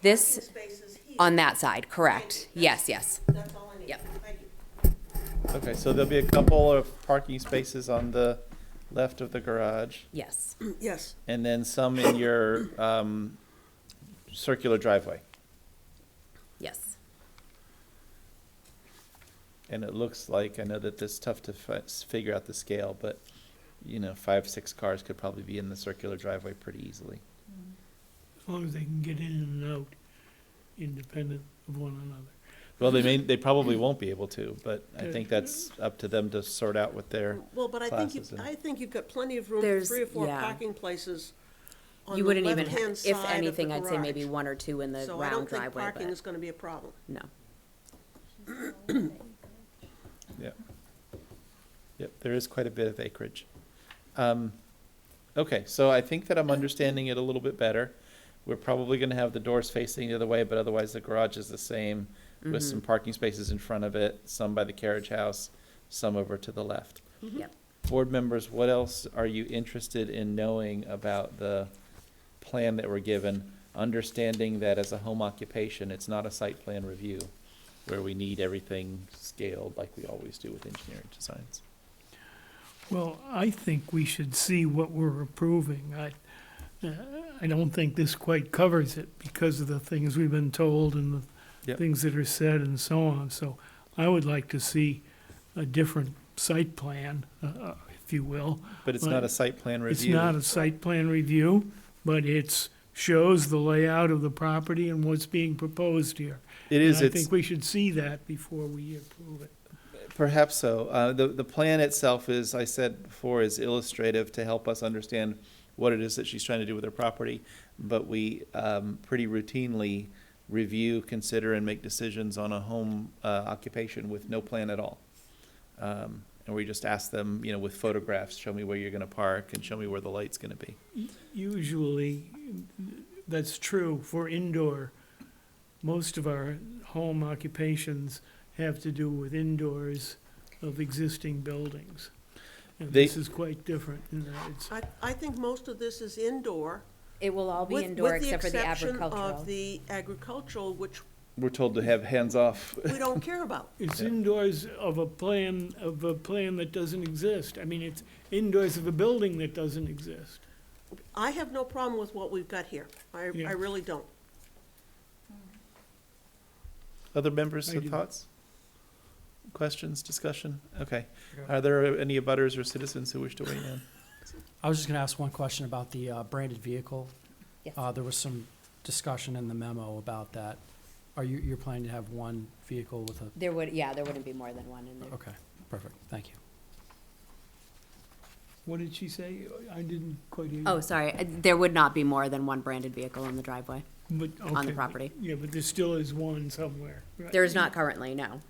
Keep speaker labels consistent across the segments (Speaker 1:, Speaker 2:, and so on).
Speaker 1: This,
Speaker 2: spaces here.
Speaker 1: on that side, correct. Yes, yes.
Speaker 2: That's all I need.
Speaker 1: Yep.
Speaker 2: Thank you.
Speaker 3: Okay, so there'll be a couple of parking spaces on the left of the garage,
Speaker 1: Yes,
Speaker 2: Yes,
Speaker 3: and then some in your um, circular driveway.
Speaker 1: yes.
Speaker 3: And it looks like, I know that this is tough to fi- s- figure out the scale, but, you know, five, six cars could probably be in the circular driveway pretty easily.
Speaker 4: as long as they can get in and out independent of one another.
Speaker 3: Well, they may, they probably won't be able to, but I think that's up to them to sort out with their,
Speaker 2: well, but I think, you-
Speaker 3: Classes and-
Speaker 2: I think you've got plenty of room, for
Speaker 1: There's-
Speaker 2: three or four
Speaker 1: yeah.
Speaker 2: parking places on the
Speaker 1: You wouldn't even, ha-
Speaker 2: left-hand side
Speaker 1: if
Speaker 2: of the
Speaker 1: anything, I'd say maybe
Speaker 2: garage.
Speaker 1: one or two in the
Speaker 2: So I
Speaker 1: round
Speaker 2: don't think
Speaker 1: driveway,
Speaker 2: parking
Speaker 1: but
Speaker 2: is gonna be a problem.
Speaker 1: no.
Speaker 3: yeah. Yep, there is quite a bit of acreage. Um, Okay, so I think that I'm understanding it a little bit better. We're probably gonna have the doors facing the other way, but otherwise the garage is the same with some parking spaces in front of it, some by the carriage house, some over to the left.
Speaker 2: Mm-hmm.
Speaker 1: Yep.
Speaker 3: Board members, what else are you interested in knowing about the plan that we're given? Understanding that as a home occupation, it's not a site plan review where we need everything scaled like we always do with engineering designs.
Speaker 4: Well, I think we should see what we're approving. I, uh, I don't think this quite covers it because of the things we've been told and the
Speaker 3: Yep.
Speaker 4: things that are said and so on. So I would like to see a different site plan, uh, uh, if you will.
Speaker 3: But it's not a
Speaker 4: Right.
Speaker 3: site plan
Speaker 4: It's
Speaker 3: review.
Speaker 4: not a site plan review, but it's, shows the layout of the property and what's being proposed here.
Speaker 3: It
Speaker 4: And
Speaker 3: is,
Speaker 4: I
Speaker 3: it's,
Speaker 4: think we should see that before we approve it.
Speaker 3: perhaps so. Uh, the, the plan itself is, I said before, is illustrative to help us understand what it is that she's trying to do with her property. But we, um, pretty routinely review, consider, and make decisions on a home, uh, occupation with no plan at all. Um, and we just ask them, you know, with photographs, show me where you're gonna park and show me where the light's gonna be.
Speaker 4: Usually, that's true for indoor. Most of our home occupations have to do with indoors of existing buildings. And
Speaker 3: They-
Speaker 4: this is quite different in that it's,
Speaker 2: I, I think most of this is indoor.
Speaker 1: It will all be
Speaker 2: with-
Speaker 1: indoor
Speaker 2: with
Speaker 1: except for the
Speaker 2: exception
Speaker 1: agricultural.
Speaker 2: Of the agricultural, which
Speaker 3: We're told to have hands off.
Speaker 2: we don't care about.
Speaker 4: it's
Speaker 3: Yeah.
Speaker 4: indoors of a plan, of a plan that doesn't exist. I mean, it's indoors of a building that doesn't exist.
Speaker 2: I have no problem with what we've got here. I,
Speaker 4: Yeah.
Speaker 2: I really don't.
Speaker 3: Other members
Speaker 4: I
Speaker 3: have
Speaker 4: do.
Speaker 3: thoughts? Questions, discussion? Okay. Are there any abutters or citizens who wish to weigh in?
Speaker 5: I was just going to ask one question about the uh, branded vehicle.
Speaker 1: Yes.
Speaker 5: Uh, There was some discussion in the memo about that. Are you, you're planning to have one vehicle with a,
Speaker 1: There would, yeah, there wouldn't be more than one in there.
Speaker 5: okay, perfect, thank you.
Speaker 4: What did she say? I didn't quite hear.
Speaker 1: Oh, sorry, uh, there would not be more than one branded vehicle in the driveway. on the property.
Speaker 4: Yeah, but there still is one somewhere. right?
Speaker 1: There is not currently, no.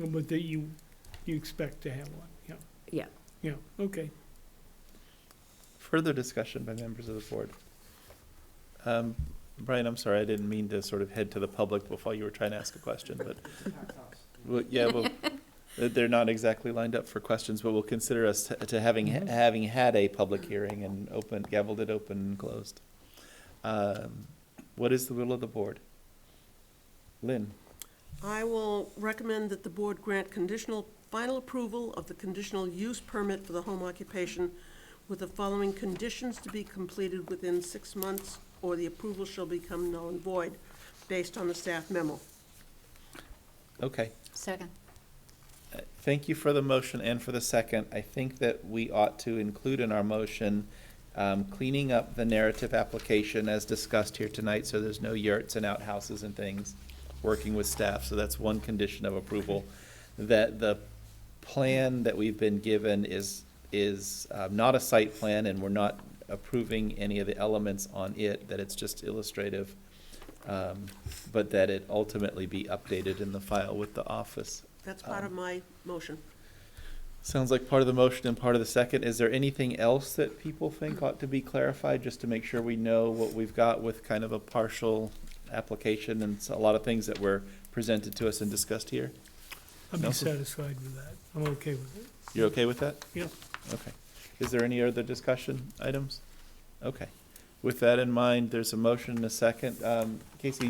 Speaker 4: But that you, you expect to have one, yeah.
Speaker 1: Yeah.
Speaker 4: Yeah, okay.
Speaker 3: Further discussion by members of the board? Um, Brian, I'm sorry, I didn't mean to sort of head to the public before you were trying to ask a question, but. Well, yeah, well, they're- they're not exactly lined up for questions, but we'll consider us to- to having, having had a public hearing and open, gavelled it open and closed. Um, What is the will of the board? Lynn?
Speaker 2: I will recommend that the board grant conditional, final approval of the conditional use permit for the home occupation with the following conditions to be completed within six months, or the approval shall become null and void, based on the staff memo.
Speaker 3: Okay.
Speaker 1: Second.
Speaker 3: Uh, Thank you for the motion and for the second. I think that we ought to include in our motion um, cleaning up the narrative application as discussed here tonight, so there's no yurts and outhouses and things, working with staff, so that's one condition of approval. That the plan that we've been given is, is um, not a site plan, and we're not approving any of the elements on it, that it's just illustrative, um, but that it ultimately be updated in the file with the office
Speaker 2: That's part of my motion.
Speaker 3: Sounds like part of the motion and part of the second. Is there anything else that people think ought to be clarified, just to make sure we know what we've got with kind of a partial application and s- a lot of things that were presented to us and discussed here?
Speaker 4: I'd be
Speaker 3: Nelson?
Speaker 4: satisfied with that. I'm okay with it.
Speaker 3: You're okay with that?
Speaker 4: Yeah.
Speaker 3: Okay. Is there any other discussion items? Okay. With that in mind, there's a motion and a second. Um, Casey,